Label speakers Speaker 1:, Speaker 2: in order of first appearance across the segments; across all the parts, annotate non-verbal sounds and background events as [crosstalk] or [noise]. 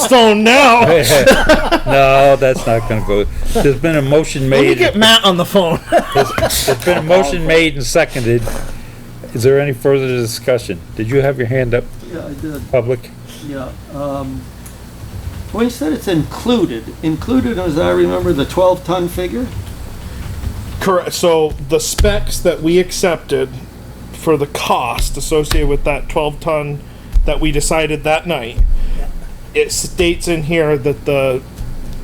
Speaker 1: stone now.
Speaker 2: [laughs] No, that's not gonna go. There's been a motion
Speaker 1: Let me
Speaker 2: made,
Speaker 1: get Matt on the phone.
Speaker 2: there's been a motion made and seconded. Is there any further discussion? Did you have your hand up,
Speaker 3: Yeah, I did,
Speaker 2: public?
Speaker 3: yeah. Um, When you said it's included, included, as I remember, the 12-ton figure?
Speaker 4: Correct. So the specs that we accepted for the cost associated with that 12 ton that we decided that night, it states in here that the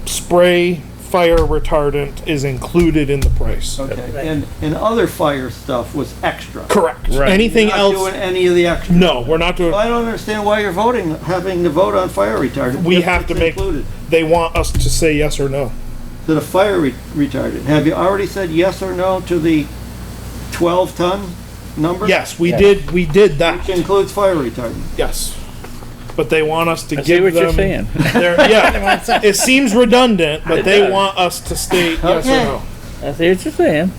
Speaker 4: spray fire retardant is included in the price.
Speaker 3: Okay, and, and other fire stuff was extra.
Speaker 4: Correct.
Speaker 1: Right.
Speaker 4: Anything
Speaker 3: Not
Speaker 4: else?
Speaker 3: doing any of the extra.
Speaker 4: no, we're not doing.
Speaker 3: Well, I don't understand why you're voting, having to vote on fire retardant.
Speaker 4: We
Speaker 3: if
Speaker 4: have
Speaker 3: it's
Speaker 4: to make.
Speaker 3: included.
Speaker 4: They want us to say yes or no.
Speaker 3: To the fire re- retardant, have you already said yes or no to the 12-ton number?
Speaker 4: Yes, we did. We did that.
Speaker 3: Which includes fire retardant.
Speaker 4: Yes. But they want us to
Speaker 2: I
Speaker 4: give
Speaker 2: see what you're
Speaker 4: them
Speaker 2: saying.
Speaker 4: their- [laughs] yeah, it seems redundant, but they
Speaker 2: does.
Speaker 4: want us to state yes or
Speaker 3: Okay.
Speaker 4: no.
Speaker 2: I see what you're saying.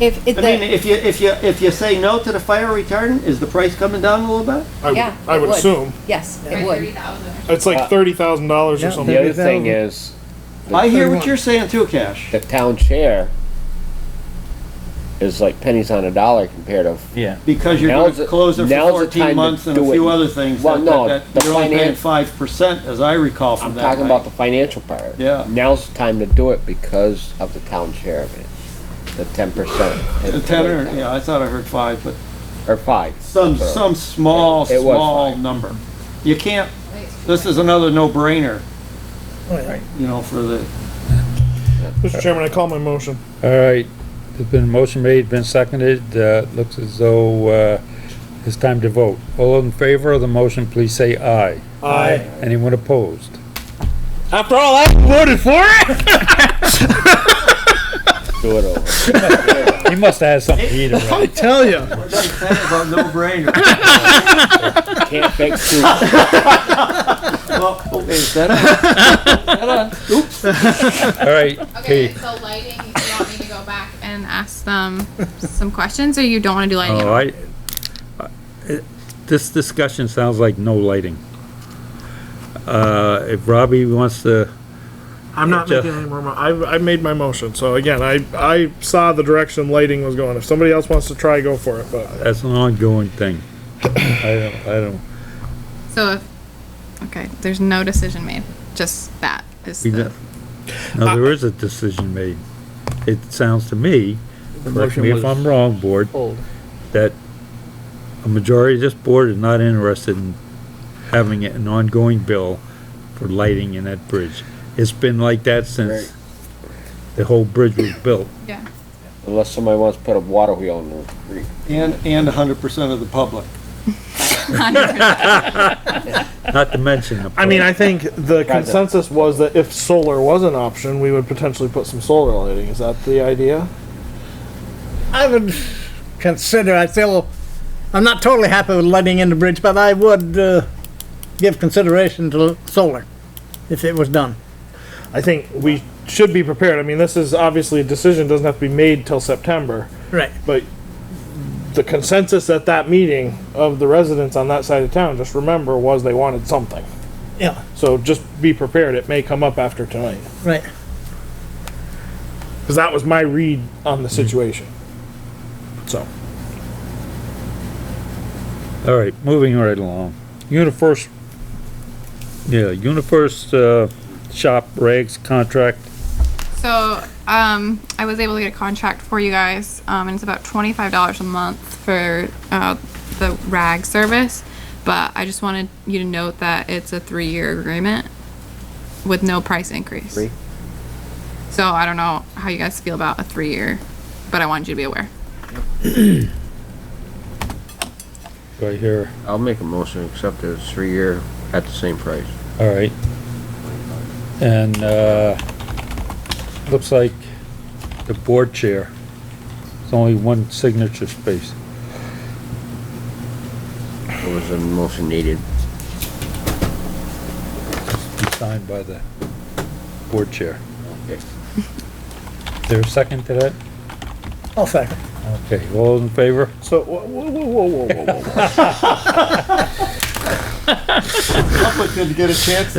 Speaker 5: If, if
Speaker 3: I mean,
Speaker 5: they,
Speaker 3: if you, if you, if you say no to the fire retardant, is the price coming down a little bit?
Speaker 4: I would,
Speaker 5: Yeah,
Speaker 4: I
Speaker 5: it
Speaker 4: would
Speaker 5: would.
Speaker 4: assume
Speaker 5: yes, it
Speaker 6: Thirty
Speaker 5: would.
Speaker 6: thousand.
Speaker 4: it's like thirty thousand dollars or something.
Speaker 7: The other thing is,
Speaker 3: I hear what you're saying too, Cash.
Speaker 7: the town chair is like pennies on a dollar compared to,
Speaker 2: Yeah.
Speaker 3: Because you're going
Speaker 7: Now's
Speaker 3: to
Speaker 7: the-
Speaker 3: close it
Speaker 7: now's
Speaker 3: for
Speaker 7: the
Speaker 3: 14
Speaker 7: time to
Speaker 3: months and a
Speaker 7: do it.
Speaker 3: few other things.
Speaker 7: Well,
Speaker 3: that-
Speaker 7: no,
Speaker 3: that-
Speaker 7: the
Speaker 3: You're only paying
Speaker 7: finance-
Speaker 3: 5%, as I recall
Speaker 7: I'm
Speaker 3: from that
Speaker 7: talking about
Speaker 3: night.
Speaker 7: the financial part.
Speaker 3: Yeah.
Speaker 7: Now's the time to do it because of the town chair of it, the ten percent.
Speaker 3: The 10 or, yeah, I thought I heard 5, but
Speaker 7: Or five.
Speaker 3: some,
Speaker 7: So,
Speaker 3: some small,
Speaker 7: It was
Speaker 3: small
Speaker 7: five.
Speaker 3: number. You can't, this is another no-brainer, you know, for the,
Speaker 4: Mr. Chairman, I call my motion.
Speaker 2: All right, there's been a motion made, been seconded, uh, looks as though, uh, it's time to vote. All in favor of the motion, please say aye.
Speaker 4: Aye.
Speaker 2: Anyone opposed?
Speaker 4: After all that,
Speaker 1: Voted for it.
Speaker 7: Do it over.
Speaker 2: He must have had something to eat around.
Speaker 1: [laughs] I tell you.
Speaker 3: What did I say about no-brainer.
Speaker 7: Can't fix two.
Speaker 3: [laughs] Well, oh, is that on? Is that on? Oops.
Speaker 2: All right,
Speaker 6: Okay,
Speaker 2: Kate.
Speaker 6: so lighting, you want me to go back and ask them some questions, or you don't wanna do lighting at
Speaker 2: Oh,
Speaker 6: all?
Speaker 2: I, I- Uh, it- this discussion sounds like no lighting. Uh, if Robbie wants to,
Speaker 4: I'm not
Speaker 2: Jeff.
Speaker 4: making any more. Mo- I I made my motion. So again, I I saw the direction lighting was going. If somebody else wants to try, go for it. But
Speaker 2: that's an ongoing
Speaker 1: [coughs]
Speaker 2: thing. I don't, I don't,
Speaker 6: So if, okay, there's no decision made, just that is
Speaker 2: we
Speaker 6: the,
Speaker 2: don't-
Speaker 1: Uh,
Speaker 2: no, there is a decision made. It sounds to me, correct
Speaker 1: motion
Speaker 2: me if
Speaker 1: was
Speaker 2: I'm wrong, board,
Speaker 1: pulled.
Speaker 2: that a majority of this board is not interested in having an ongoing bill for lighting in that bridge. It's been like that since
Speaker 7: Right.
Speaker 2: the whole bridge was built.
Speaker 6: yeah.
Speaker 7: Unless somebody wants to put a water wheel in the creek.
Speaker 3: And, and 100% of the public.
Speaker 2: Not to mention the.
Speaker 4: I mean, I think the
Speaker 7: Right.
Speaker 4: consensus was that if solar was an option, we would potentially put some solar lighting. Is that the idea?
Speaker 1: I would consider, I feel, I'm not totally happy with lighting in the bridge, but I would, uh, give consideration to solar if it was done.
Speaker 4: I think we should be prepared. I mean, this is obviously a decision doesn't have to be made till September,
Speaker 1: Right.
Speaker 4: but the consensus at that meeting of the residents on that side of town, just remember, was they wanted something.
Speaker 1: Yeah,
Speaker 4: So just be prepared. It may come up after tonight.
Speaker 1: right.
Speaker 4: Because that was my read on the situation. So.
Speaker 2: All right, moving right along. Universe, yeah, Universe, uh, shop rags contract.
Speaker 6: So, um, I was able to get a contract for you guys, um, and it's about twenty-five dollars a month for, uh, the rag service. But I just wanted you to note that it's a three-year agreement with no price increase.
Speaker 7: Three.
Speaker 6: So I don't know how you guys feel about a three-year, but I wanted you to be aware.
Speaker 2: Right here.
Speaker 7: I'll make a motion, except that it's three year at the same price.
Speaker 2: All right. And, uh, looks like the board chair. There's only one signature space.
Speaker 7: It was a motion needed.
Speaker 2: It's signed by the board chair.
Speaker 7: Okay.
Speaker 2: Is there a second to that?
Speaker 1: I'll second.
Speaker 2: Okay, all in favor?
Speaker 4: So, whoa, whoa, whoa, whoa, whoa, whoa, whoa.
Speaker 3: Public didn't get a chance